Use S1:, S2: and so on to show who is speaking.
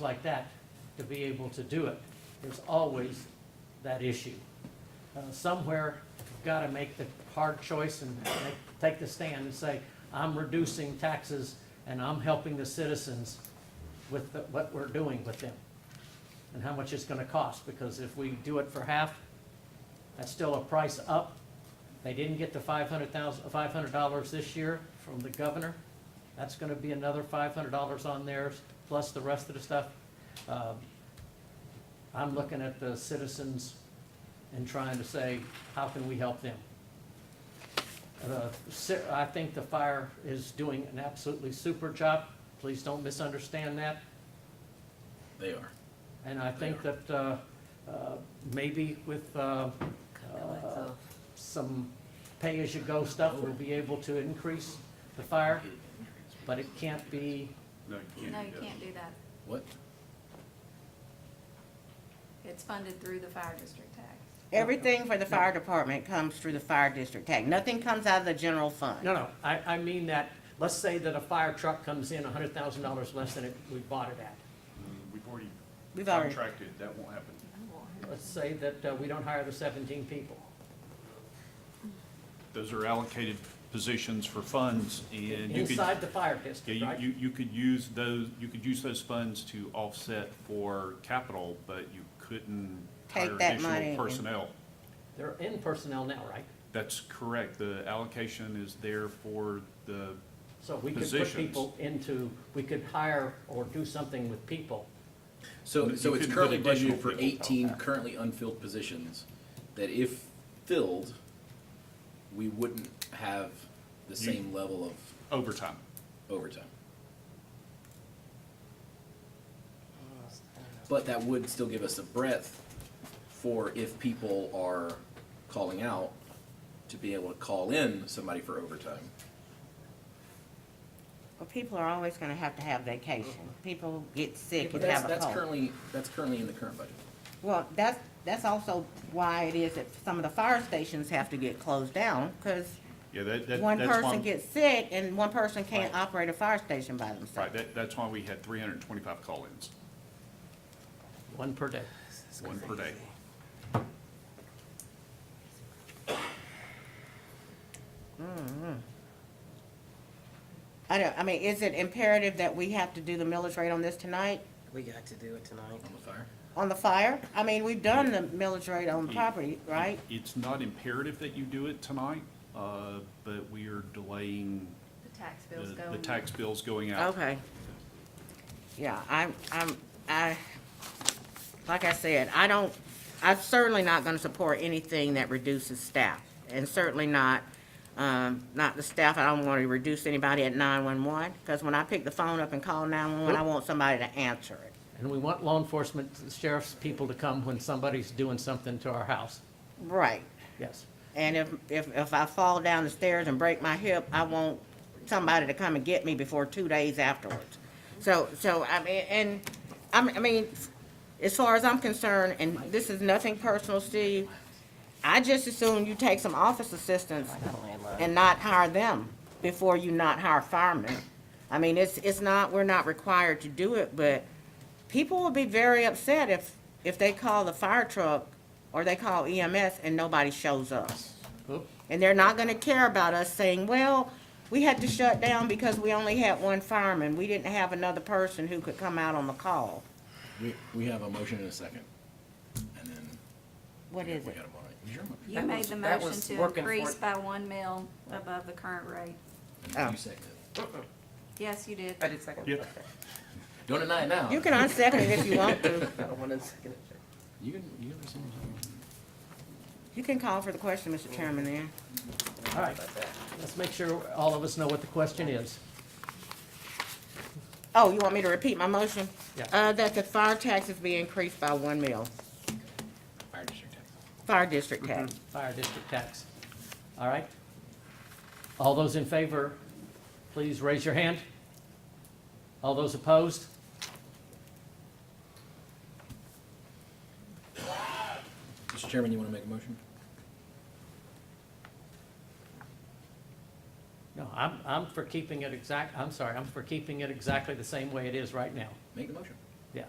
S1: like that to be able to do it. There's always that issue. Uh, Somewhere, you've got to make the hard choice and make- take the stand and say, I'm reducing taxes and I'm helping the citizens with the- what we're doing with them and how much it's going to cost, because if we do it for half, that's still a price up. They didn't get the five hundred thousand, five hundred dollars this year from the governor. That's gonna be another five hundred dollars on theirs, plus the rest of the stuff. Um, I'm looking at the citizens and trying to say, how can we help them? Uh, si- I think the fire is doing an absolutely super job. Please don't misunderstand that.
S2: They are.
S1: And I think
S2: They
S1: that uh, uh, maybe with uh,
S3: Cut the lights
S1: Uh,
S3: off.
S1: some pay-as-you-go stuff, we'll be able to increase the fire, but it can't be,
S4: No, you
S3: No,
S4: can't
S3: you
S4: do that.
S3: can't do that.
S2: What?
S3: It's funded through the fire district tax.
S5: Everything for the fire department comes through the fire district tax. Nothing comes out of the general fund.
S1: no, no, I, I mean that, let's say that a fire truck comes in hundred thousand dollars less than it, we bought it at.
S4: Mm, We've already
S5: We've already-
S4: contracted, that won't happen.
S1: Let's say that uh, we don't hire the seventeen people.
S4: Those are allocated positions for funds, and you could,
S1: Inside the fire district,
S4: yeah,
S1: right?
S4: you, you, you could use those, you could use those funds to offset for capital, but you couldn't
S5: Take
S4: hire
S5: that money
S4: additional
S5: and-
S4: personnel.
S1: They're in personnel now, right?
S4: That's correct, the allocation is there for the,
S1: So we could put
S4: Positions.
S1: people into, we could hire or do something with people.
S2: So,
S4: You
S2: so it's
S4: couldn't put
S2: currently
S4: additional
S2: budgeted for
S4: people.
S2: eighteen currently unfilled positions that if filled, we wouldn't have the
S4: You-
S2: same level of
S4: overtime.
S2: overtime. But that would still give us a breadth for if people are calling out, to be able to call in somebody for overtime.
S5: Well, people are always gonna have to have vacation. People get
S2: Uh-huh.
S5: sick
S2: But
S5: and
S2: that's,
S5: have a
S2: that's
S5: cold.
S2: currently, that's currently in the current budget.
S5: Well, that's, that's also why it is that some of the fire stations have to get closed down, cause
S4: Yeah, that, that, that's why.
S5: one person
S4: I'm-
S5: gets sick and one person can't
S4: Right.
S5: operate a fire station by
S4: Right,
S5: themselves.
S4: that, that's why we had three hundred and twenty-five call-ins,
S1: One per day.
S4: one per day.
S5: I don't, I mean, is it imperative that we have to do the millage rate on this tonight,
S6: We got to do it tonight.
S2: On the fire?
S5: on the fire? I mean, we've done the millage rate
S4: Hmm.
S5: on the property, right?
S4: It's not imperative that you do it tonight, uh, but we are delaying
S3: The tax
S4: the,
S3: bill's going.
S4: the tax bills going out.
S5: Okay. Yeah, I'm, I'm, I, like I said, I don't, I'm certainly not gonna support anything that reduces staff. And certainly not, um, not the staff, I don't wanna reduce anybody at nine-one-one, because when I pick the phone up and call nine-one-one, I want somebody to answer it.
S1: And we want law enforcement, sheriff's people to come when somebody's doing something to our house.
S5: Right.
S1: Yes.
S5: And if, if, if I fall down the stairs and break my hip, I want somebody to come and get me before two days afterwards. So, so, I mean, and, I'm, I mean, as far as I'm concerned, and this is nothing personal, Steve, I just assume you take some office assistants and not hire them before you not hire firemen. I mean, it's, it's not, we're not required to do it, but people will be very upset if, if they call the fire truck or they call EMS and nobody shows up.
S1: Oop.
S5: And they're not gonna care about us saying, well, we had to shut down because we only had one fireman. We didn't have another person who could come out on the call.
S2: We, we have a motion and a second. And then.
S5: What
S2: we-
S5: is
S2: we
S5: it?
S2: got a motion. Is your motion?
S3: You
S6: That
S3: made
S6: was-
S3: the
S6: that
S3: motion
S6: was
S3: to
S6: working for
S3: increase
S6: it.
S3: by one mil above the current rate.
S5: Oh.
S2: You second it.
S3: Yes, you did.
S6: I did second.
S4: Yep.
S6: Okay.
S2: Don't deny it now.
S5: You can unsecond it if you want to.
S6: I don't want to second it.
S2: You can, you can rescind your motion.
S5: You can call for the question, Mr. Chairman, then.
S1: All right, let's make sure all of us know what the question is.
S5: Oh, you want me to repeat my motion?
S1: Yeah.
S5: Uh, that the fire taxes be increased by one mil,
S2: Fire district tax.
S5: fire district tax.
S1: Fire district tax. All right? All those in favor, please raise your hand. All those opposed?
S2: Mr. Chairman, you want to make a motion?
S1: No, I'm, I'm for keeping it exact, I'm sorry, I'm for keeping it exactly the same way it is right now.
S2: Make the motion.
S1: yeah.